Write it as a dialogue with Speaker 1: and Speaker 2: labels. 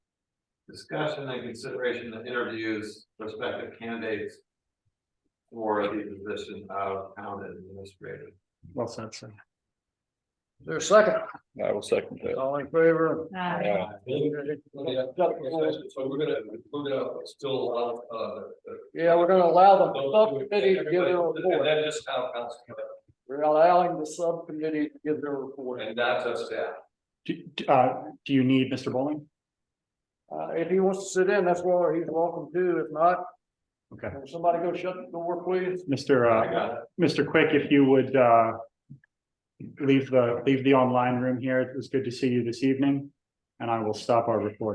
Speaker 1: Discussion and consideration of interviews prospective candidates. For the position of town administrator.
Speaker 2: Well, said, sir.
Speaker 3: Is there a second?
Speaker 4: I will second that.
Speaker 3: All in favor?
Speaker 5: Aye.
Speaker 1: Yeah, so we're gonna, we're gonna still allow, uh.
Speaker 3: Yeah, we're gonna allow the subcommittee to give their report.
Speaker 1: then just town council,
Speaker 3: We're allowing the subcommittee to give their report.
Speaker 1: and that's us staff.
Speaker 2: Do, do- uh, do you need Mr. Bowling?
Speaker 3: Uh, if he wants to sit in, that's where he's welcome to. If not.
Speaker 2: Okay.
Speaker 3: can Somebody go shut the door, please.
Speaker 2: Mr. Uh, Mr. Quick, if you would, uh. Leave the, leave the online room here. It was good to see you this evening. And I will stop our recording.